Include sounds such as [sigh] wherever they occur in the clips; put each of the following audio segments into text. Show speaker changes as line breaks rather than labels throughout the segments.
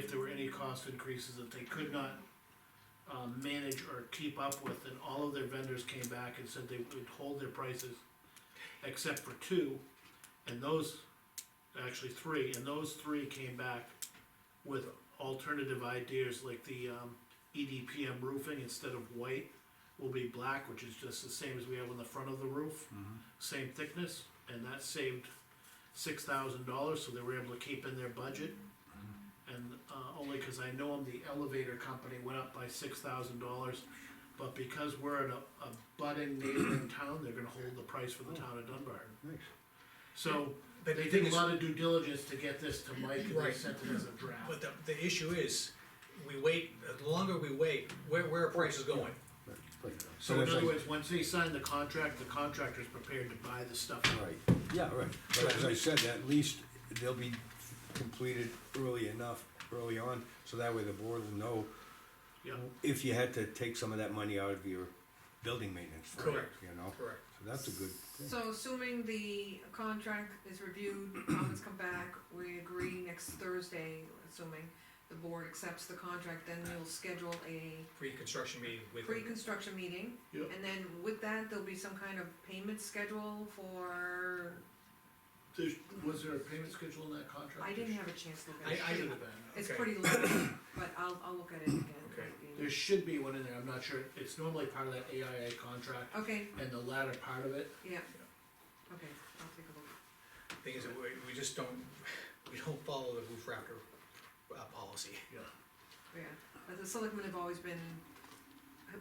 if there were any cost increases that they could not um, manage or keep up with, and all of their vendors came back and said they would hold their prices except for two, and those, actually three, and those three came back with alternative ideas like the um, EDPM roofing instead of white will be black, which is just the same as we have on the front of the roof, same thickness, and that saved six thousand dollars, so they were able to keep in their budget. And, uh, only cause I know 'em, the elevator company went up by six thousand dollars, but because we're in a, a budding neighboring town, they're gonna hold the price for the town of Dunbar.
Nice.
So,
But
they
the
did
thing
a
is-
lot of due diligence to get this to Mike, and they
Right.
sent it as a draft.
But the, the issue is, we wait, the longer we wait, where, where are prices going?
Right, right.
So in
that's
other
like-
words, once they sign the contract, the contractor's prepared to buy the stuff.
Right, yeah, right, but as I said, at least they'll be completed early enough, early on, so that way the board will know
Yeah,
if you had to take some of that money out of your building maintenance fund,
Correct.
you know?
Correct.
So that's a good thing.
So assuming the contract is reviewed, comments come back, we agree next Thursday, assuming the board accepts the contract, then we'll schedule a
Pre-construction meeting with.
pre-construction meeting.
Yep.
And then with that, there'll be some kind of payment schedule for,
There's, was there a payment schedule in that contract?
I didn't have a chance to look at
I-
it.
I
Should
didn't-
have been.
It's
okay.
pretty low, but I'll, I'll look at it again.
Okay.
There should be one in there, I'm not sure, it's normally part of that AIA contract,
Okay,
and the latter part of it,
yeah, okay, I'll take a look.
Thing is, that we, we just don't, [laughs] we don't follow the roof rafter, uh, policy.
yeah.
Yeah, but the selectmen have always been,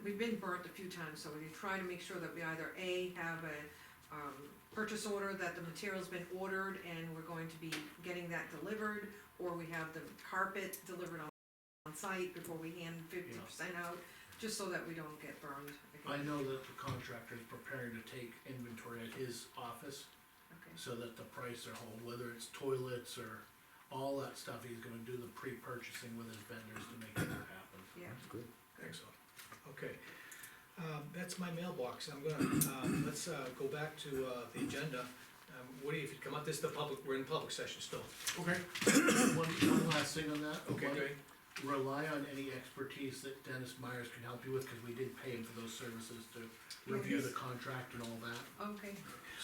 we've been burnt a few times, so we try to make sure that we either A, have a, um, purchase order that the material's been ordered and we're going to be getting that delivered, or we have the carpet delivered on, on site before we hand fifty percent out, just so that we don't get burned
I
again.
know that the contractor is preparing to take inventory at his office,
Okay,
so that the price are whole, whether it's toilets or all that stuff, he's gonna do the pre-purchasing with his vendors to make that happen.
yeah,
Good.
Excellent, okay. Um, that's my mailbox, I'm gonna, um, let's, uh, go back to, uh, the agenda. Um, Woody, if you come up, this is the public, we're in public session still.
Okay. [coughs] One, one last thing on that. One-
Woody?
rely on any expertise that Dennis Myers can help you with, cause we did pay him for those services to review the contract and all that,
okay,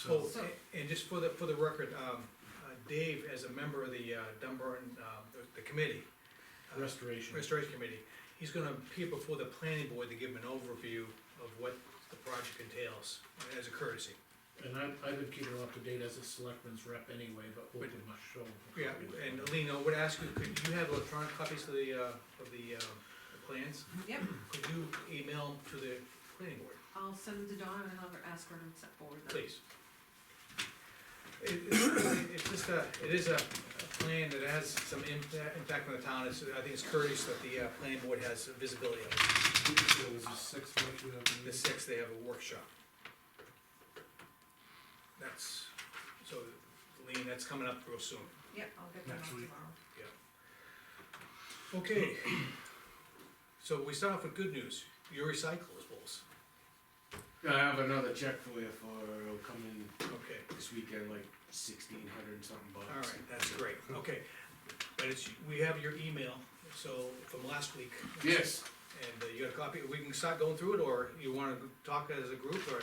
Oh,
so.
So-
a- and just for the, for the record, um, uh, Dave, as a member of the, uh, Dunbar, um, the, the committee.
Oh,
uh,
Restoration.
Restoration Committee, he's gonna appear before the planning board to give him an overview of what the project entails, as a courtesy.
And I, I've been keeping him up to date as a selectman's rep anyway, but we'll pretty much show him.
Yeah, and Lean, I would ask you, could you have electronic copies of the, uh, of the, uh, the plans?
yep,
Could you email to the planning board,
I'll send them to Donna and I'll ask her to set forward them.
please? It, it's- it's just a, it is a a plan that has some impact, impact on the town, it's, I think it's courteous that the, uh, planning board has visibility of it.
It was a six month you have to
The
use.
sixth, they have a workshop. That's, so, Lean, that's coming up real soon.
Yep, I'll get them out
Next week.
tomorrow.
Okay. So we start off with good news, your recyclables.
I have another check for you for, it'll come in
Okay,
this weekend, like sixteen hundred and something
all
bucks.
right, that's great, okay. But it's, we have your email, so, from last week.
Yes,
And uh, you got a copy, we can start going through it, or you wanna talk as a group, or?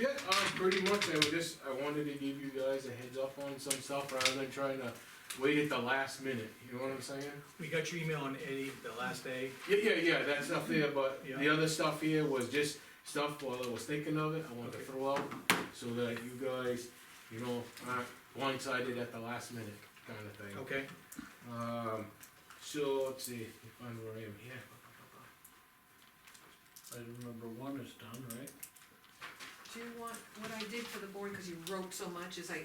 yeah, um, pretty much, I would just, I wanted to give you guys a heads up on some stuff rather than trying to wait at the last minute, you know what I'm saying?
We got your email on Eddie the last day,
Yeah, yeah, yeah, that stuff there, but the
Yeah.
other stuff here was just stuff while I was thinking of it, I wanted to
Okay.
throw out, so that you guys, you know, aren't blindsided at the last minute, kinda thing.
okay?
Um, so, let's see, if I am where I am here.
I
uh,
remember one is done, right?
Do you want, what I did for the board, because you wrote so much, is I,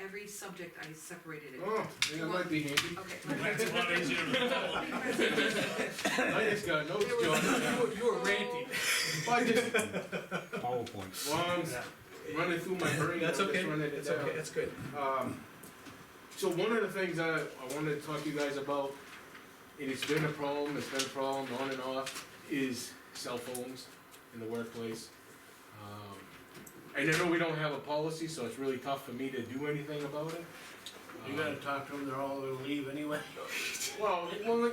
every subject I separated it.
Oh, yeah, that might be handy.
Okay. [laughs]
I just got notes,
You
John.
were- you were ranting.
I just,
PowerPoint.
well, I'm running through my brain.
That's
I'm just
okay,
running it
that's okay,
down.
that's good.
Um, so one of the things I, I wanted to talk to you guys about, and it's been a problem, it's been a problem on and off, is cell phones in the workplace. Um, And I know we don't have a policy, so it's really tough for me to do anything about it.
You gotta talk to them, they're all gonna leave anyway.
Well, well,